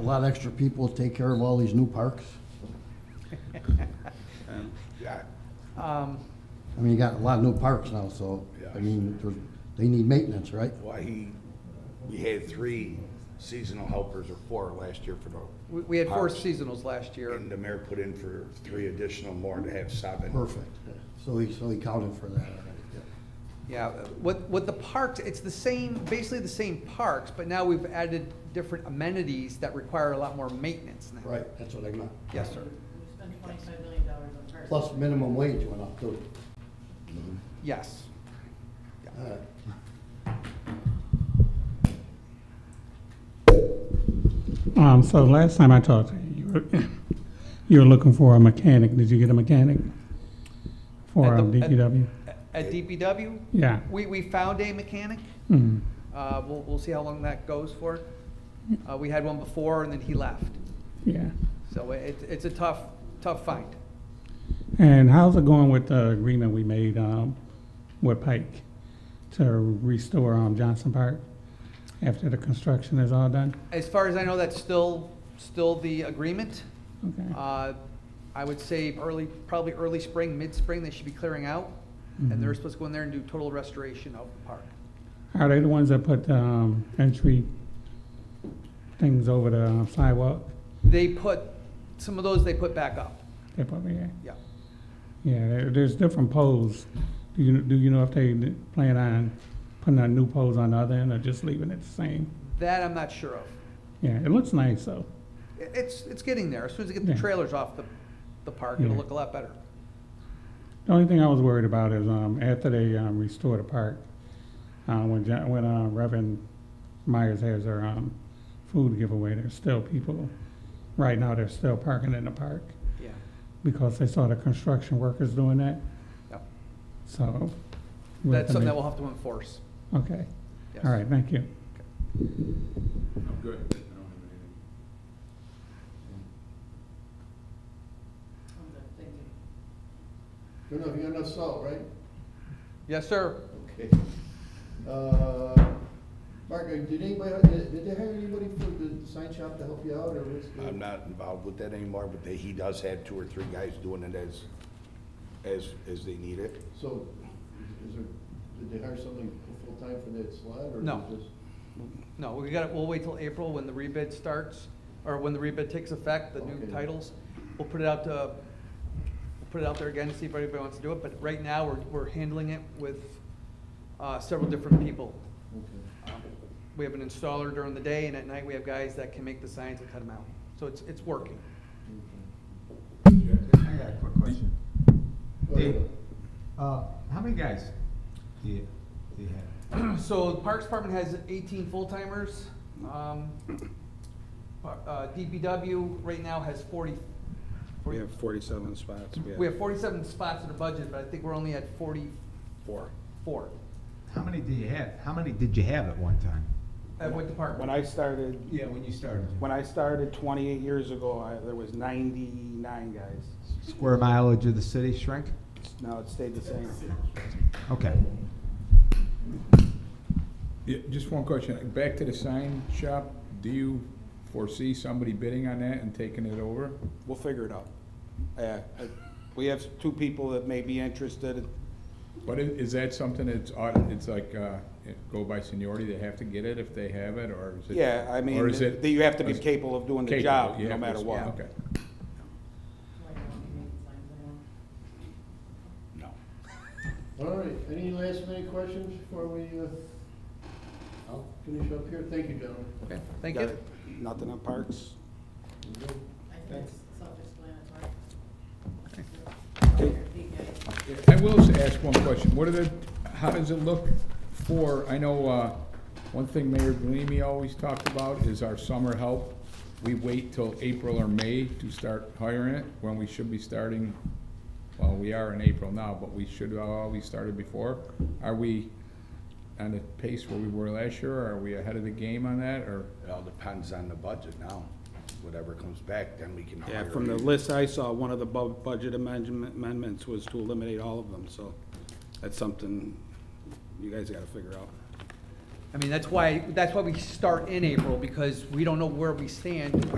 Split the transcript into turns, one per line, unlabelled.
a lot of extra people to take care of all these new parks.
Yeah,
Um,
I mean, you got a lot of new parks now, so, I mean, they're- they need maintenance, right?
Why he, we had three seasonal helpers or four last year for the.
we, we had four
parks,
seasonals last year.
And the mayor put in for three additional more to have seven.
Perfect. So he, so he counted for that already. yeah.
Yeah, what, what the parks, it's the same, basically the same parks, but now we've added different amenities that require a lot more maintenance now.
Right, that's what I meant.
Yes, sir.
We spent twenty-five million dollars on parks.
Plus minimum wage went up too.
Yes.
All right.
Um, so last time I talked to you, you were, you were looking for a mechanic. Did you get a mechanic for
At
um,
the- at-
DPW?
At DPW,
Yeah.
we, we found a mechanic.
Mm.
Uh, we'll, we'll see how long that goes for. Uh, we had one before and then he left.
Yeah.
So it, it's a tough, tough find.
And how's it going with the agreement we made um, with Pike to restore um, Johnson Park after the construction is all done?
As far as I know, that's still, still the agreement.
Okay.
Uh, I would say early, probably early spring, mid-spring, they should be clearing out. And
Mm-hmm.
they're supposed to go in there and do total restoration of the park.
Are they the ones that put um, entry things over the sidewalk?
They put, some of those they put back up,
They put me in.
yeah.
Yeah, there, there's different poles. Do you, do you know if they plan on putting a new poles on the other end or just leaving it the same?
That I'm not sure of.
Yeah, it looks nice though.
I- It's, it's getting there. As soon as they get the
Yeah.
trailers off the, the park, it'll
Yeah.
look a lot better.
The only thing I was worried about is, um, after they, um, restore the park, uh, when, Ja- when, uh, Reverend Myers has their, um, food giveaway, there's still people, right now, they're still parking in the park
Yeah.
because they saw the construction workers doing that,
Yep.
so. we're
That's something that we'll
gonna-
have to enforce.
Okay,
Yes.
all right, thank you.
I'm good. I don't have anything.
I'm good, thank you.
You enough, you got enough salt, right?
Yes, sir.
Okay. Uh, Mark, did anybody, did did they hire anybody for the sign shop to help you out, or what's? the-
I'm not involved with that anymore, but they- he does have two or three guys doing it as, as, as they need it.
So, is there, did they hire somebody full-time for that slot, or?
No.
is this-
No, we got, we'll wait till April when the rebid starts, or when the rebid takes effect, the new
Okay.
titles. We'll put it out to, we'll put it out there again, to see if anybody wants to do it, but right now, we're, we're handling it with, uh, several different people.
Okay.
Um, We have an installer during the day, and at night, we have guys that can make the signs and cut them out. So it's, it's working.
I got a quick question.
Okay.
Dave. Uh, how many guys do you, do you have?
So the Parks Department has eighteen full-timers. Um, par- uh, DPW right now has 40
We have forty-seven spots.
We have forty-seven spots in the budget, but I think we're only at forty-four.
four.
How many do you have? How many did you have at one time?
At what department?
When I started,
Yeah, when you started.
when I started twenty-eight years ago, I, there was ninety-nine guys.
Square mileage of the city shrink?
Now it stayed the same.
Okay.
Yeah, just one question. Back to the sign shop, do you foresee somebody bidding on that and taking it over?
We'll figure it out. Yeah, I- we have two people that may be interested.
But i- is that something that's, au- it's like, uh, it go by seniority, they have to get it if they have it, or is it?
Yeah, I mean,
or is it-
that you have to be
is-
capable of doing the
capable,
job,
you
no
have to-
matter what.
Okay.
Like, I don't need signs anymore.
No.
All right, any last minute questions before we, uh, I'll finish up here? Thank you, gentlemen.
Okay, thank you.
Nothing on parks?
I think it's self-explanatory. Repeat, guys.
I will just ask one question. What are the, how does it look for, I know, uh, one thing Mayor Galimi always talked about is our summer help. We wait till April or May to start hiring it, when we should be starting, well, we are in April now, but we should have always started before. Are we on the pace where we were last year, or are we ahead of the game on that, or?
It all depends on the budget now. Whatever comes back, then we can hire.
Yeah, from the list I saw, one of the bu- budget amendment- amendments was to eliminate all of them, so that's something you guys gotta figure out.
I mean, that's why, that's why we start in April, because we don't know where we stand